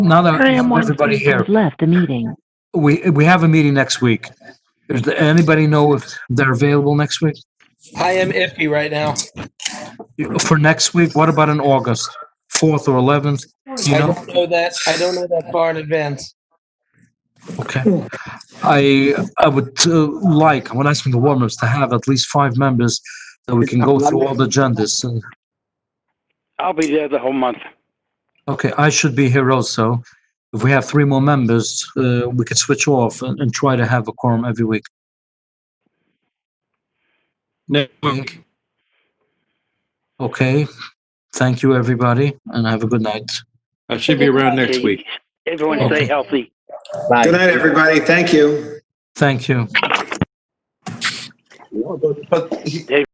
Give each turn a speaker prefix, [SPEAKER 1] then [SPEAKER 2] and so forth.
[SPEAKER 1] now that
[SPEAKER 2] I am one
[SPEAKER 1] everybody here,
[SPEAKER 2] person's Left the meeting.
[SPEAKER 1] we, we have a meeting next week. Does anybody know if they're available next week?
[SPEAKER 3] I am iffy right now.
[SPEAKER 1] For next week, what about in August, 4th or 11th? Do you
[SPEAKER 3] I
[SPEAKER 1] know?
[SPEAKER 3] don't know that. I don't know that far in advance.
[SPEAKER 1] Okay. I, I would uh, like, I'm asking the warmers to have at least five members that we can go through all the agendas. And-
[SPEAKER 4] I'll be there the whole month.
[SPEAKER 1] Okay, I should be here also. If we have three more members, uh, we could switch off and, and try to have a quorum every week.
[SPEAKER 5] Next
[SPEAKER 1] week. Okay, thank you, everybody, and have a good night.
[SPEAKER 5] I should be around next
[SPEAKER 4] Okay.
[SPEAKER 5] week.
[SPEAKER 4] Everyone
[SPEAKER 1] Okay.
[SPEAKER 4] stay healthy.
[SPEAKER 6] Good night, everybody. Thank you.
[SPEAKER 1] Thank you.
[SPEAKER 6] But